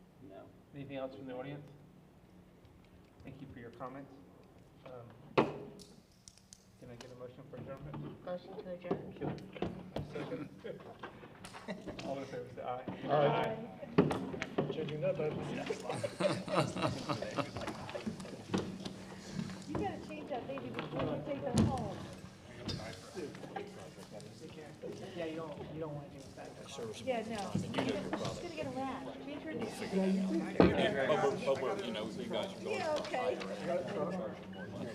Anything else from the audience? Thank you for your comments. Um, Can I get a motion for adjournment? Motion to adjourn. Second. All in favor, say aye. Judging that, I You gotta change that baby before you take them home. Yeah, you don't, you don't wanna do that. Yeah, no. She's gonna get a rash. Change her name. But we're, but we're, you know, you guys are going Yeah, okay.